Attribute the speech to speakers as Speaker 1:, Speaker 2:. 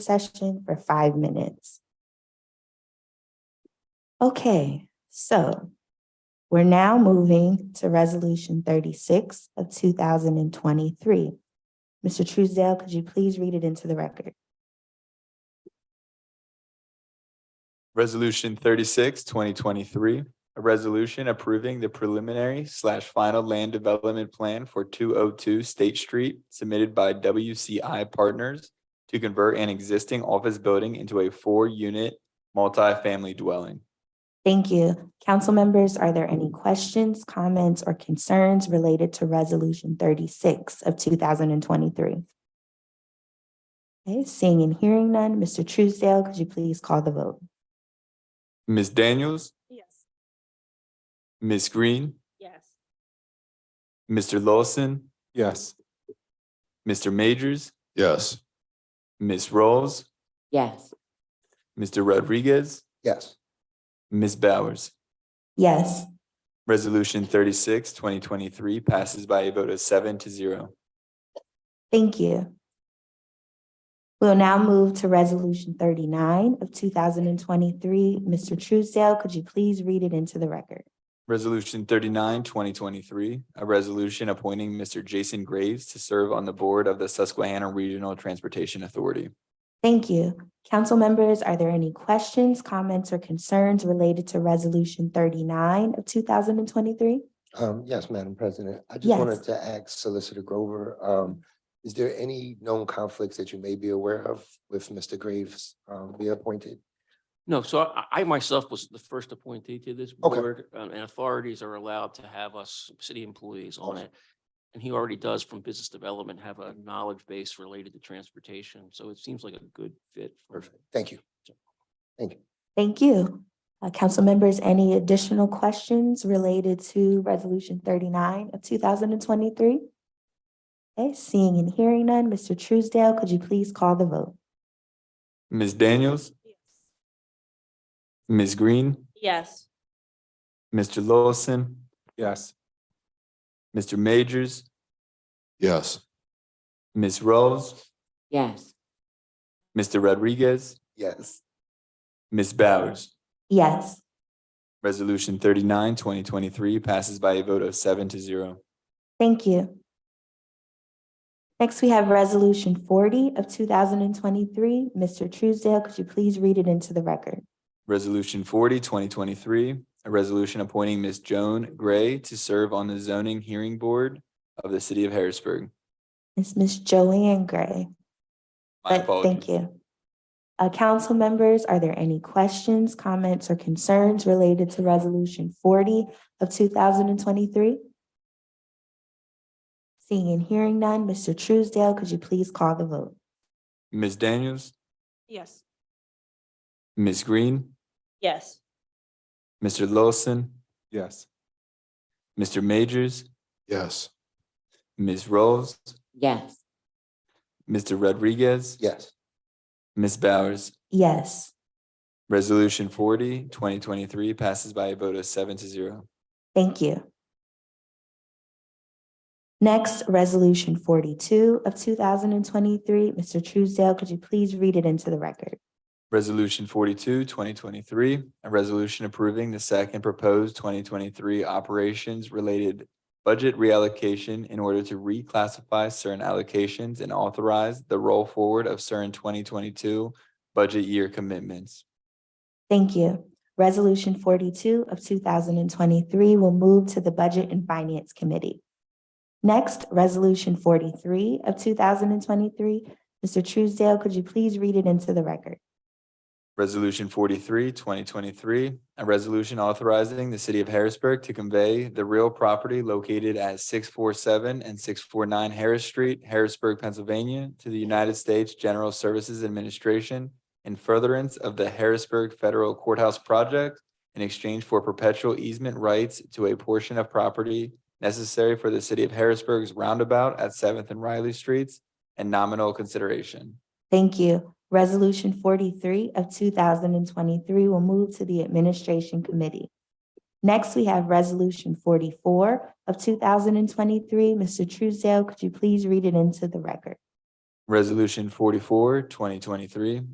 Speaker 1: session for five minutes. Okay, so we're now moving to Resolution thirty-six of two thousand and twenty-three. Mr. Truesdale, could you please read it into the record?
Speaker 2: Resolution 36, 2023, a resolution approving the preliminary slash final land development plan for 202 State Street submitted by WCI Partners to convert an existing office building into a four-unit multifamily dwelling.
Speaker 1: Thank you. Council members, are there any questions, comments, or concerns related to Resolution thirty-six of two thousand and twenty-three? Okay, seeing and hearing none, Mr. Truesdale, could you please call the vote?
Speaker 2: Ms. Daniels,
Speaker 3: Yes.
Speaker 2: Ms. Green,
Speaker 3: Yes.
Speaker 2: Mr. Lawson,
Speaker 4: Yes.
Speaker 2: Mr. Majors,
Speaker 4: Yes.
Speaker 2: Ms. Rolls,
Speaker 5: yes,
Speaker 2: Mr. Rodriguez,
Speaker 4: Yes.
Speaker 2: Ms. Bowers.
Speaker 1: Yes,
Speaker 2: Resolution 36, 2023 passes by a vote of seven to zero.
Speaker 1: Thank you. We'll now move to Resolution thirty-nine of two thousand and twenty-three. Mr. Truesdale, could you please read it into the record?
Speaker 2: Resolution 39, 2023, a resolution appointing Mr. Jason Graves to serve on the board of the Susquehanna Regional Transportation Authority.
Speaker 1: Thank you. Council members, are there any questions, comments, or concerns related to Resolution thirty-nine of two thousand and twenty-three?
Speaker 6: Um, yes, Madam President, I just
Speaker 1: Yes.
Speaker 6: wanted to ask Solicitor Grover, um, is there any known conflicts that you may be aware of with Mr. Graves, um, be appointed?
Speaker 7: No, so I, I myself was the first appointee to this
Speaker 6: Okay.
Speaker 7: board, um, and authorities are allowed to have us, city employees on
Speaker 6: Awesome.
Speaker 7: it. And he already does from business development have a knowledge base related to transportation, so it seems like a good fit. for-
Speaker 6: Perfect, thank you.
Speaker 1: Thank you. Uh, council members, any additional questions related to Resolution thirty-nine of two thousand and twenty-three? Okay, seeing and hearing none, Mr. Truesdale, could you please call the vote?
Speaker 2: Ms. Daniels, Ms. Green,
Speaker 3: Yes.
Speaker 2: Mr. Lawson,
Speaker 4: Yes.
Speaker 2: Mr. Majors,
Speaker 4: Yes.
Speaker 2: Ms. Rose,
Speaker 5: yes,
Speaker 2: Mr. Rodriguez,
Speaker 6: Yes,
Speaker 2: Ms. Bowers.
Speaker 1: Yes.
Speaker 2: Resolution 39, 2023 passes by a vote of seven to zero.
Speaker 1: Thank you. Next, we have Resolution forty of two thousand and twenty-three. Mr. Truesdale, could you please read it into the record?
Speaker 2: Resolution 40, 2023, a resolution appointing Ms. Joan Gray to serve on the zoning hearing board of the city of Harrisburg.
Speaker 1: It's Ms. Joanne Gray.
Speaker 2: My
Speaker 1: but Thank
Speaker 2: apologies.
Speaker 1: you. Uh, council members, are there any questions, comments, or concerns related to Resolution forty of two thousand and twenty-three? Seeing and hearing none, Mr. Truesdale, could you please call the vote?
Speaker 2: Ms. Daniels,
Speaker 3: Yes.
Speaker 2: Ms. Green,
Speaker 3: Yes.
Speaker 2: Mr. Lawson,
Speaker 4: Yes.
Speaker 2: Mr. Majors,
Speaker 4: Yes.
Speaker 2: Ms. Rolls,
Speaker 5: yes.
Speaker 2: Mr. Rodriguez,
Speaker 6: yes.
Speaker 2: Ms. Bowers.
Speaker 1: Yes.
Speaker 2: Resolution 40, 2023 passes by a vote of seven to zero.
Speaker 1: Thank you. Next, Resolution forty-two of two thousand and twenty-three. Mr. Truesdale, could you please read it into the record?
Speaker 2: Resolution 42, 2023, a resolution approving the second proposed twenty twenty-three operations related budget reallocation in order to reclassify certain allocations and authorize the roll forward of certain twenty twenty-two budget year commitments.
Speaker 1: Thank you. Resolution forty-two of two thousand and twenty-three will move to the Budget and Finance Committee. Next, Resolution forty-three of two thousand and twenty-three. Mr. Truesdale, could you please read it into the record?
Speaker 2: Resolution 43, 2023, a resolution authorizing the city of Harrisburg to convey the real property located at six four seven and six four nine Harris Street, Harrisburg, Pennsylvania, to the United States General Services Administration in furtherance of the Harrisburg Federal Courthouse Project in exchange for perpetual easement rights to a portion of property necessary for the city of Harrisburg's roundabout at Seventh and Riley Streets and nominal consideration.
Speaker 1: Thank you. Resolution forty-three of two thousand and twenty-three will move to the Administration Committee. Next, we have Resolution forty-four of two thousand and twenty-three. Mr. Truesdale, could you please read it into the record?
Speaker 2: Resolution forty-four, twenty twenty-three,